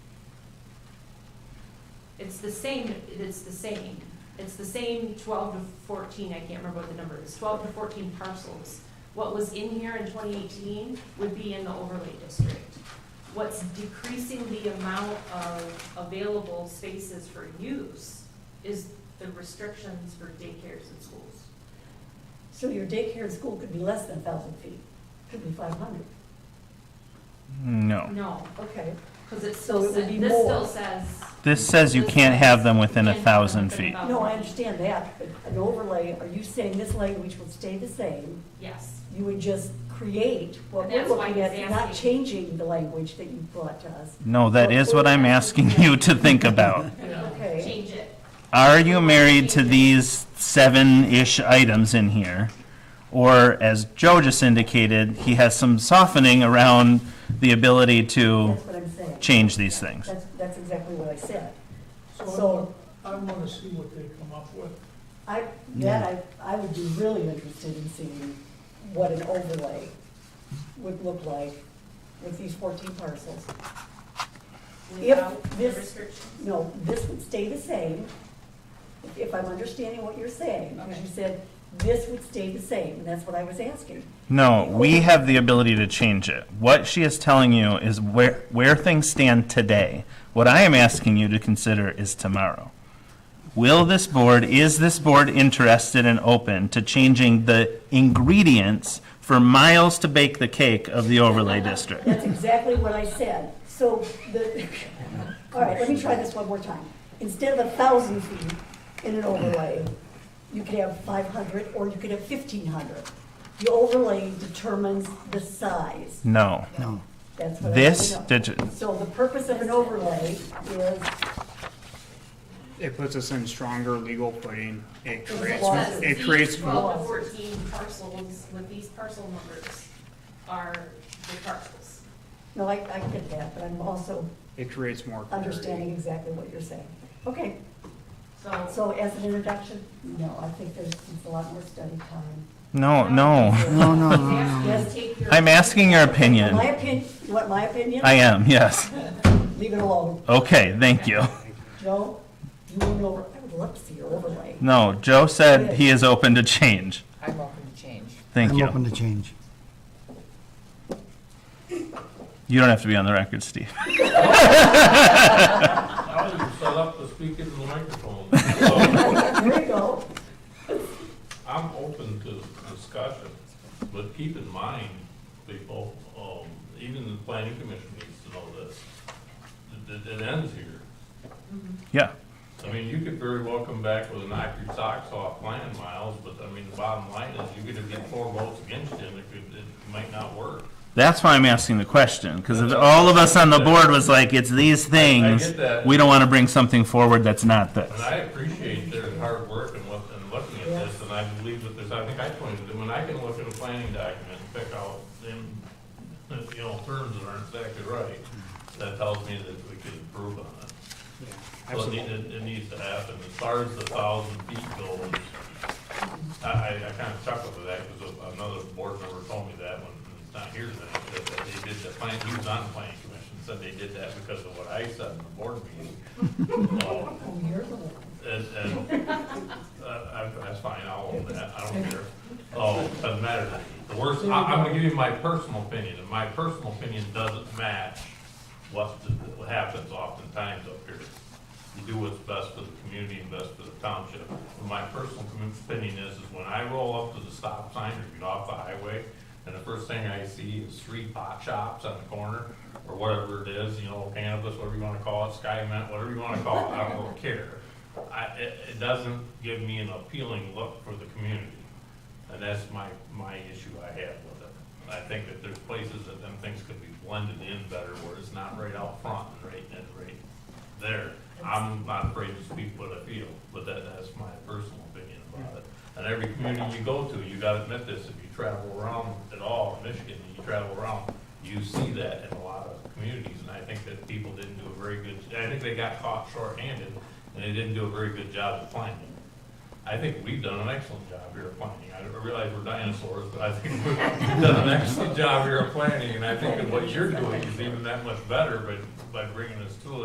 It's the same, it's the same. It's the same twelve to fourteen, I can't remember what the number is, twelve to fourteen parcels. What was in here in twenty eighteen would be in the overlay district. What's decreasing the amount of available spaces for use is the restrictions for daycares and schools. So your daycare and school could be less than thousand feet, could be five hundred. No. No, Okay, because it still So it would says, be this more. still says. This says you can't have them within a thousand feet. no, I understand that, but an overlay, are you saying this language will stay the same? Yes, You would just create what And we're that's why looking at, he's not asking. changing the language that you brought to us? No, that is what I'm asking you to think about. Okay. change it. Are you married to these seven-ish items in here? Or, as Joe just indicated, he has some softening around the ability to That's what I'm saying. change these things. That's, that's exactly what I said. So I want to see what they come up with. I, that I, I would be really interested in seeing what an overlay would look like with these fourteen parcels. Without the this- restrictions. No, this would stay the same, if I'm understanding what you're saying. Because you said this would stay the same, and that's what I was asking. No, we have the ability to change it. What she is telling you is where, where things stand today. What I am asking you to consider is tomorrow. Will this board, is this board interested and open to changing the ingredients for miles to bake the cake of the overlay district? That's exactly what I said. So the, all right, let me try this one more time. Instead of a thousand feet in an overlay, you could have five hundred, or you could have fifteen hundred. The overlay determines the size. No. That's what I This, know. digi- So the purpose of an overlay is It puts us in stronger legal footing. It There's a creates, lot Because of- it these creates, Twelve to fourteen parcels with these parcel numbers are the parcels. No, I, I get that, but I'm also it creates more. clarity. understanding exactly what you're saying. Okay, So, so as an introduction, no, I think there's it's a lot more study time. no, no. Oh, No, no, He's no. asking you to Yes. take your- I'm asking your opinion. My opinion, you want my opinion? I am, yes. Leave it alone. Okay, thank you. Joe, you went over, I would love to see your overlay. No, Joe said he is open to change. I'm open to change. Thank I'm open you. to change. You don't have to be on the record, Steve. I was set up to speak into the microphone, so There you go. I'm open to discussion, but keep in mind, people, um, even the planning commission needs to know this. It, it- it ends here. Yeah. I mean, you could very well come back with a knock your socks off plan, Miles, but I mean, the bottom line is you're gonna get four votes against him, it could, it might not work. That's why I'm asking the question, because if all of us on the board was like, it's these things, get that. we don't want to bring something forward that's not this. And I appreciate their hard work and what, and looking at this, and I believe that there's, I think I pointed to, when I can look at a planning document and pick out them, you know, terms that aren't exactly right, that tells me that we could improve on it. Yeah, So it Absolutely. need- it, it needs to happen. As far as the thousand feet goes, I, I, I kind of chuckled at that because another board member told me that when it's not here tonight, that, that they did the plan, he was on the planning commission, said they did that because of what I said in the board meeting. So, Oh, you're the one. and, and, uh, I- that's fine, I'll, own that. I don't care. Oh, doesn't matter. to me. The worst, I, I'm gonna give you my personal opinion, and my personal opinion doesn't match what, the- what happens oftentimes up here. You do what's best for the community and best for the township. But my personal commu- opinion is, is when I roll up to the stop sign or get off the highway, and the first thing I see is three pot shops on the corner, or whatever it is, you know, cannabis, whatever you wanna call it, Sky Mint, whatever you wanna call it, I don't really care. I, it, it doesn't give me an appealing look for the community. And that's my, my issue I have with it. I think that there's places that them things could be blended in better where it's not right out front and right, and right there. I'm not afraid to speak what I feel, but that, that's my personal opinion about it. And every community you go to, you gotta admit this, if you travel around at all, in Michigan, and you travel around, you see that in a lot of communities, and I think that people didn't do a very good, I think they got caught shorthanded, and they didn't do a very good job of planning. I think we've done an excellent job here of planning. I realize we're dinosaurs, but I think we've done an excellent job here of planning, and I think that what you're doing is even that much better, but by bringing us to it.